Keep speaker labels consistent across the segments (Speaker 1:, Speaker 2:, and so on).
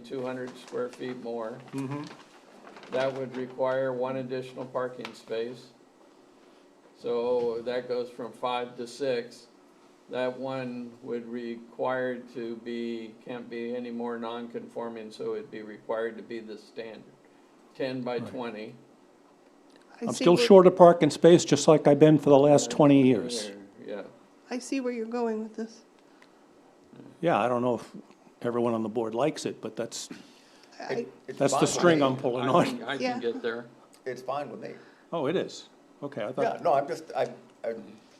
Speaker 1: two hundred square feet more. That would require one additional parking space. So that goes from five to six. That one would require to be, can't be any more non-conforming, so it'd be required to be the standard, ten by twenty.
Speaker 2: I
Speaker 3: I'm
Speaker 2: see
Speaker 3: still
Speaker 2: where-
Speaker 3: short of parking space, just like I've been for the last 20 years.
Speaker 1: Yeah.
Speaker 2: I see where you're going with this.
Speaker 3: Yeah, I don't know if everyone on the board likes it, but that's,
Speaker 2: I,
Speaker 4: It's
Speaker 3: that's the
Speaker 4: fine with
Speaker 3: string
Speaker 4: me.
Speaker 3: I'm pulling
Speaker 1: I
Speaker 3: on.
Speaker 1: can, I
Speaker 2: Yeah.
Speaker 1: can get there.
Speaker 4: It's fine with me.
Speaker 3: Oh, it is? Okay, I
Speaker 4: Yeah,
Speaker 3: thought,
Speaker 4: no, I'm just, I, I,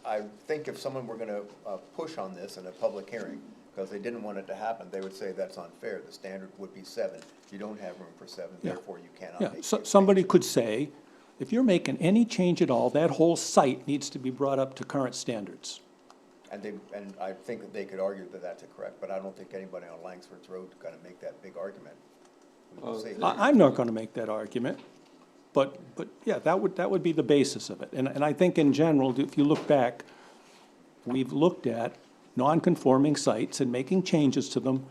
Speaker 4: I think if someone were gonna, uh, push on this in a public hearing, because they didn't want it to happen, they would say that's unfair, the standard would be seven. You don't have room for seven,
Speaker 3: Yeah.
Speaker 4: therefore you cannot
Speaker 3: yeah,
Speaker 4: make. these
Speaker 3: so,
Speaker 4: changes.
Speaker 3: somebody could say, if you're making any change at all, that whole site needs to be brought up to current standards.
Speaker 4: And they, and I think that they could argue that that's correct, but I don't think anybody on Langsford's Road is gonna make that big argument. We will
Speaker 1: Oh,
Speaker 4: see.
Speaker 3: I, I'm not gonna make that argument, but, but, yeah, that would, that would be the basis of it. And, and I think in general, if you look back, we've looked at non-conforming sites and making changes to them.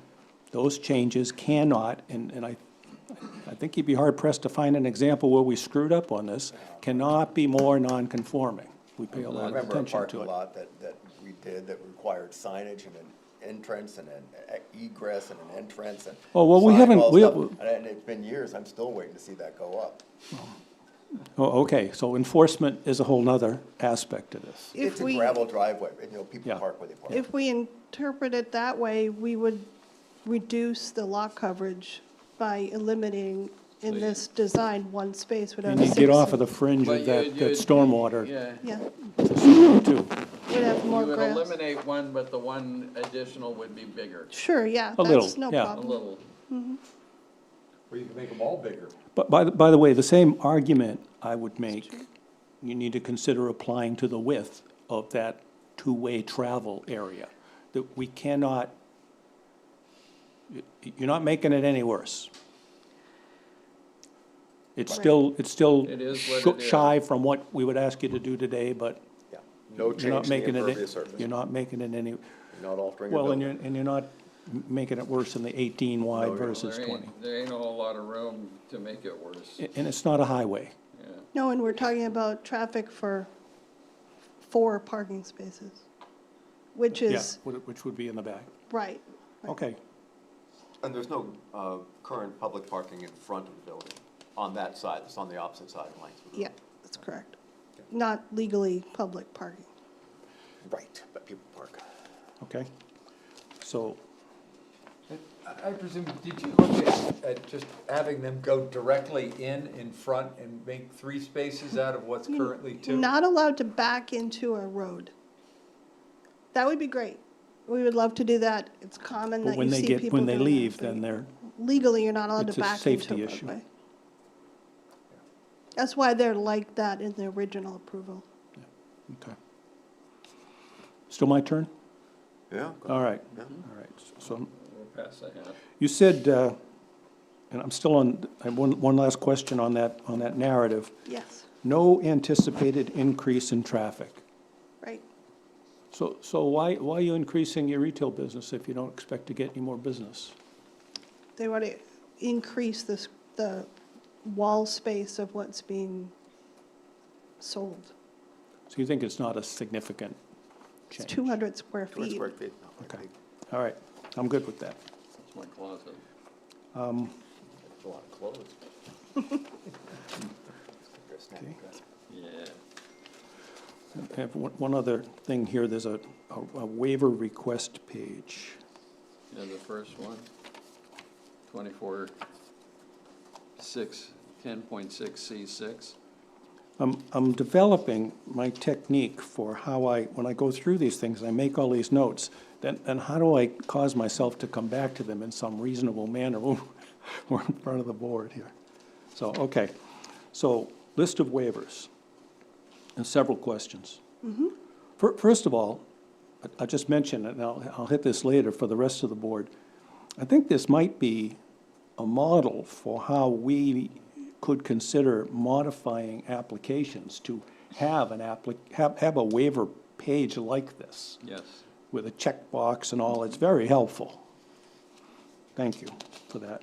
Speaker 3: Those changes cannot, and, and I, I think you'd be hard pressed to find an example where we screwed up on this, cannot be more non-conforming. We pay a
Speaker 4: I
Speaker 3: lot of
Speaker 4: remember a
Speaker 3: attention
Speaker 4: parking
Speaker 3: to it.
Speaker 4: lot that, that we did that required signage and an entrance and an e- egress and an entrance and.
Speaker 3: Oh, well, we
Speaker 4: sign,
Speaker 3: haven't-
Speaker 4: all
Speaker 3: we-
Speaker 4: stuff. And and it's been years, I'm still waiting to see that go up.
Speaker 3: Oh, okay, so enforcement is a whole nother aspect of this.
Speaker 2: if
Speaker 4: It's a
Speaker 2: we,
Speaker 4: gravel driveway, and, you know, people
Speaker 3: Yeah.
Speaker 4: park where they park.
Speaker 2: if we interpret it that way, we would reduce the lot coverage by eliminating in this design one space without
Speaker 3: And
Speaker 2: a
Speaker 3: you get off of
Speaker 2: citizen.
Speaker 3: the fringe
Speaker 1: But
Speaker 3: of
Speaker 1: you-
Speaker 3: that, that
Speaker 1: you'd-
Speaker 3: stormwater,
Speaker 1: Yeah.
Speaker 2: Yeah,
Speaker 3: too.
Speaker 2: we'd have
Speaker 1: You
Speaker 2: more
Speaker 1: would
Speaker 2: grass.
Speaker 1: eliminate one, but the one additional would be bigger,
Speaker 2: Sure, yeah,
Speaker 3: A little,
Speaker 2: that's no
Speaker 3: yeah.
Speaker 1: a
Speaker 2: problem.
Speaker 1: little.
Speaker 5: Or you can make them all bigger.
Speaker 3: But by, the- by the way, the same argument I would make, you need to consider applying to the width of that two-way travel area, that we cannot, y- you're not making it any worse. It's
Speaker 2: Right.
Speaker 3: still, it's still
Speaker 1: It is what
Speaker 3: sh-
Speaker 1: it is.
Speaker 3: shy from what we would ask you to do today, but
Speaker 4: Yeah. No
Speaker 3: you're not
Speaker 4: change to the
Speaker 3: making
Speaker 4: impervious
Speaker 3: it,
Speaker 4: surface,
Speaker 3: you're
Speaker 4: you're
Speaker 3: not making it any,
Speaker 4: not altering the
Speaker 3: well, and
Speaker 4: building.
Speaker 3: you're, and you're not m- making it worse than the eighteen wide
Speaker 4: No, you're not.
Speaker 3: versus
Speaker 1: There
Speaker 3: twenty.
Speaker 1: ain't, there ain't a whole lot of room to make it worse,
Speaker 3: A- And it's not a highway.
Speaker 1: yeah.
Speaker 2: No, and we're talking about traffic for four parking spaces, which
Speaker 3: Yeah,
Speaker 2: is,
Speaker 3: wh- which would be in the back.
Speaker 2: right.
Speaker 3: Okay.
Speaker 6: And there's no uh, current public parking in front of the building, on that side, it's on the opposite side of Langsford. Road.
Speaker 2: Yeah, that's correct. Not legally public parking.
Speaker 4: Right, but people park.
Speaker 3: Okay, so,
Speaker 5: I- I presume, did you look at, at just having them go directly in, in front, and make three spaces out of what's currently two?
Speaker 2: Not allowed to back into a road. That would be great. We would love to do that. It's common
Speaker 3: but
Speaker 2: that
Speaker 3: when
Speaker 2: you
Speaker 3: they
Speaker 2: see
Speaker 3: get,
Speaker 2: people
Speaker 3: when they
Speaker 2: doing that,
Speaker 3: leave,
Speaker 2: but
Speaker 3: then they're,
Speaker 2: Legally, you're not allowed
Speaker 3: It's
Speaker 2: to
Speaker 3: a
Speaker 2: back into
Speaker 3: safety
Speaker 2: a
Speaker 3: issue.
Speaker 2: roadway. That's why they're like that in the original approval.
Speaker 3: okay. Still my turn?
Speaker 4: Yeah.
Speaker 3: All right, all right. So
Speaker 1: We'll pass that out.
Speaker 3: you said, uh, and I'm still on, I have one, one last question on that, on that narrative.
Speaker 2: Yes,
Speaker 3: No anticipated increase in traffic.
Speaker 2: right.
Speaker 3: So, so why, why are you increasing your retail business if you don't expect to get any more business?
Speaker 2: They want to increase this, the wall space of what's being sold.
Speaker 3: So you think it's not a significant
Speaker 2: It's
Speaker 3: change?
Speaker 2: two hundred square
Speaker 4: Two
Speaker 2: feet.
Speaker 4: square feet.
Speaker 3: Okay, all right, I'm good with that.
Speaker 1: That's my closet.
Speaker 3: Um.
Speaker 4: That's a lot of clothes. They're snapping dress.
Speaker 1: Yeah.
Speaker 3: I have one, one other thing here, there's a, a- a waiver request page.
Speaker 1: Yeah, the first one. Twenty-four, six, ten point six C six.
Speaker 3: I'm, I'm developing my technique for how I, when I go through these things, and I make all these notes, then, then how do I cause myself to come back to them in some reasonable manner? when We're in front of the board here. So, okay, so, list of waivers, and several questions. Fir- First of all, I- I just mentioned, and I'll, I'll hit this later for the rest of the board, I think this might be a model for how we could consider modifying applications to have an applic, have, have a waiver page like this
Speaker 1: Yes.
Speaker 3: with a checkbox and all, it's very helpful. Thank you for that.